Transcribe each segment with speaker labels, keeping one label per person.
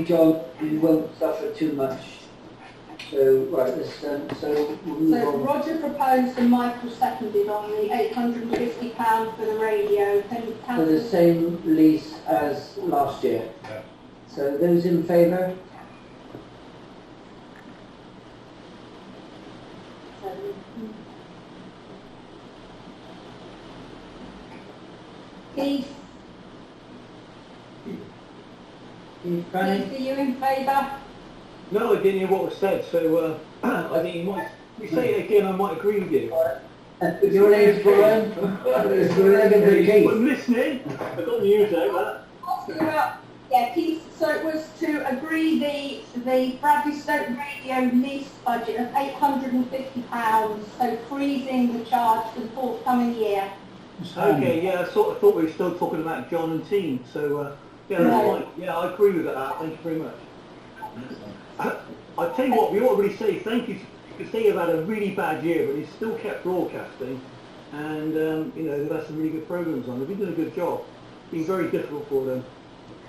Speaker 1: job, you won't suffer too much. So, right, let's, um, so we'll move
Speaker 2: So
Speaker 1: on.
Speaker 2: Roger proposed and Michael seconded on the eight hundred and fifty pound for the radio, then
Speaker 1: For the
Speaker 2: councillor.
Speaker 1: same lease as last year.
Speaker 3: Yeah.
Speaker 1: So those in favour?
Speaker 2: Keith,
Speaker 1: Keith, Franny?
Speaker 2: Keith, are you in favour?
Speaker 4: No, I didn't hear what was said, so uh, I think you might, if you say it again, I might agree with you.
Speaker 1: Uh, Your name's Brian? It's Brian Keith.
Speaker 4: I'm listening, I've got the news out,
Speaker 2: Oscar, uh, yeah, Keith, so it was to agree the, the Bradley Stoke radio lease budget of eight hundred and fifty pounds, so freezing the charge for the forthcoming year.
Speaker 4: that. Okay, yeah, I sort of thought we were still talking about John and team, so uh, yeah, that's
Speaker 2: Right.
Speaker 4: fine. yeah, I agree with that, thank you very much. Uh, I tell you what, we ought to really say thank you, because they have had a really bad year, but they still kept broadcasting, and um, you know, they've had some really good programmes on, they've been doing a good job, been very difficult for them.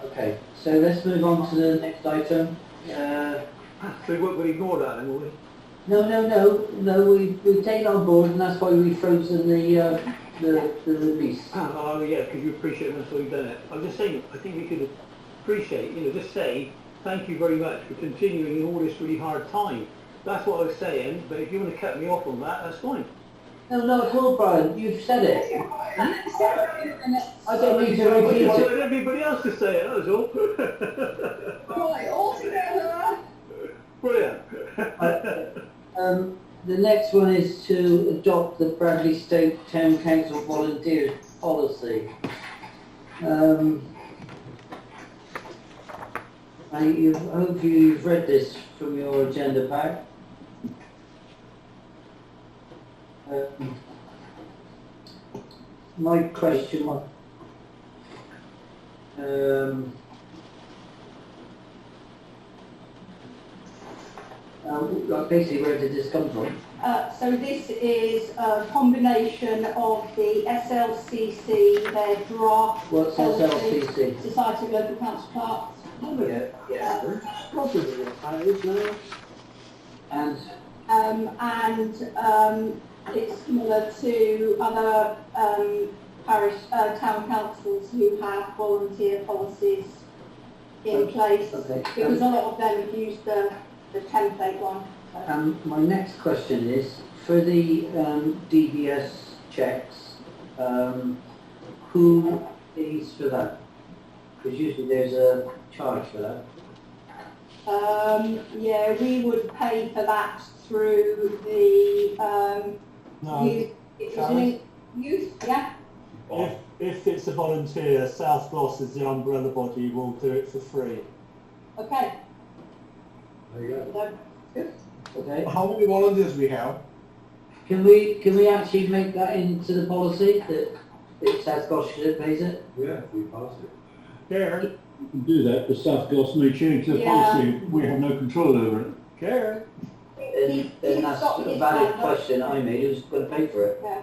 Speaker 1: Okay, so let's move on to the next item. Uh,
Speaker 4: So we won't we'll ignore that then, will we?
Speaker 1: No, no, no, no, we, we take it on board and that's why we frozen the, uh, the, the release.
Speaker 4: Oh, yeah, because you appreciate them, so you've done it. I'm just saying, I think we could appreciate, you know, just say, thank you very much for continuing in all this really hard time. That's what I was saying, but if you want to cut me off on that, that's fine.
Speaker 1: No, not at all, Brian, you've said it. I don't need to
Speaker 4: I
Speaker 1: repeat
Speaker 4: just
Speaker 1: it.
Speaker 4: wanted everybody else to say it, that was all.
Speaker 2: Right, all together.
Speaker 4: Brilliant.
Speaker 3: Uh,
Speaker 1: Um, the next one is to adopt the Bradley Stoke Town Council Volunteers Policy. Um, I, you, hope you've read this from your agenda pack. Um, My question, wa- um, uh, like basically where did this come from?
Speaker 2: Uh, so this is a combination of the SLCC, their draft
Speaker 1: What's SLCC?
Speaker 2: Society of Local Council Clerks.
Speaker 1: And
Speaker 2: Um, and, um, it's similar to other, um, parish, uh, town councils who have volunteer policies in place.
Speaker 1: Okay.
Speaker 2: Because a lot of them have used the, the template one. so.
Speaker 1: um, my next question is, for the um, DBS checks, um, who pays for that? Because usually there's a charge for that.
Speaker 2: Um, yeah, we would pay for that through the, um, youth, it's
Speaker 3: Charlie?
Speaker 2: linked- youth, yeah,
Speaker 3: If, if it's a volunteer, South Gloss is the umbrella body, will do it for free.
Speaker 2: okay.
Speaker 1: There you
Speaker 2: No,
Speaker 1: Okay.
Speaker 5: How many volunteers we have?
Speaker 1: Can we can we actually make that into the policy that it's South Gloucestershire that pays it?
Speaker 5: Yeah, we pass it.
Speaker 3: Karen? You can do that, but South Gloss may change
Speaker 2: their policy.
Speaker 3: we have no control over it.
Speaker 5: Karen?
Speaker 2: he-
Speaker 1: And,
Speaker 2: he's
Speaker 1: and that's
Speaker 2: got
Speaker 1: a
Speaker 2: his
Speaker 1: valid
Speaker 2: hand up.
Speaker 1: question I made. Who's going to pay for it?
Speaker 2: Yeah.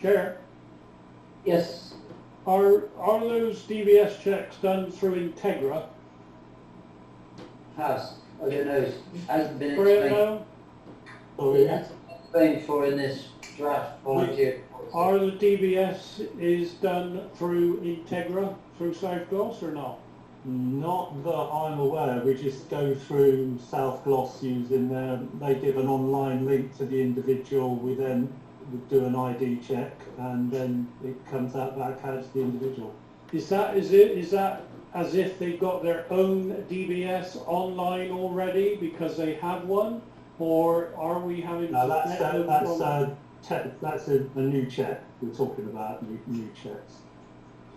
Speaker 3: Karen,
Speaker 1: Yes.
Speaker 3: are, are those DVS checks done through Integra?
Speaker 1: Pass. I don't know. It hasn't been
Speaker 3: Brilliant,
Speaker 1: explained.
Speaker 3: no?
Speaker 5: Oh,
Speaker 1: It hasn't been explained for in this draft volunteer. policy.
Speaker 3: Are the DBS is done through Integra, through South Gloss or not?
Speaker 5: Not that I'm aware, we just go through South Gloss using their, they give an online link to the individual, we then would do an ID check and then it comes out back as the individual.
Speaker 3: Is that, is it, is that as if they've got their own DBS online already because they have one? Or are we having?
Speaker 5: Now
Speaker 3: to
Speaker 5: that's,
Speaker 3: get
Speaker 5: a-
Speaker 3: them
Speaker 5: that's
Speaker 3: from-
Speaker 5: a, te- that's a, a new check we're talking about, new, new checks.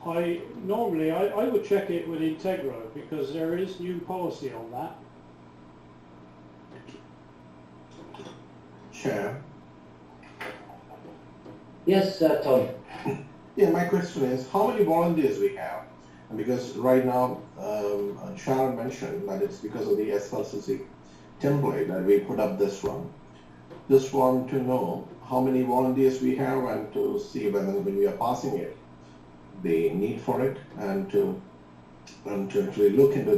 Speaker 3: I, normally, I, I would check it with Integro because there is new policy on that.
Speaker 6: Chair.
Speaker 1: Yes, uh, Tom.
Speaker 6: Yeah, my question is, how many volunteers we have? And because right now, um, Sharon mentioned that it's because of the SLCC template that we put up this one. Just want to know how many volunteers we have and to see whether when we are passing it, the need for it and to and to actually look into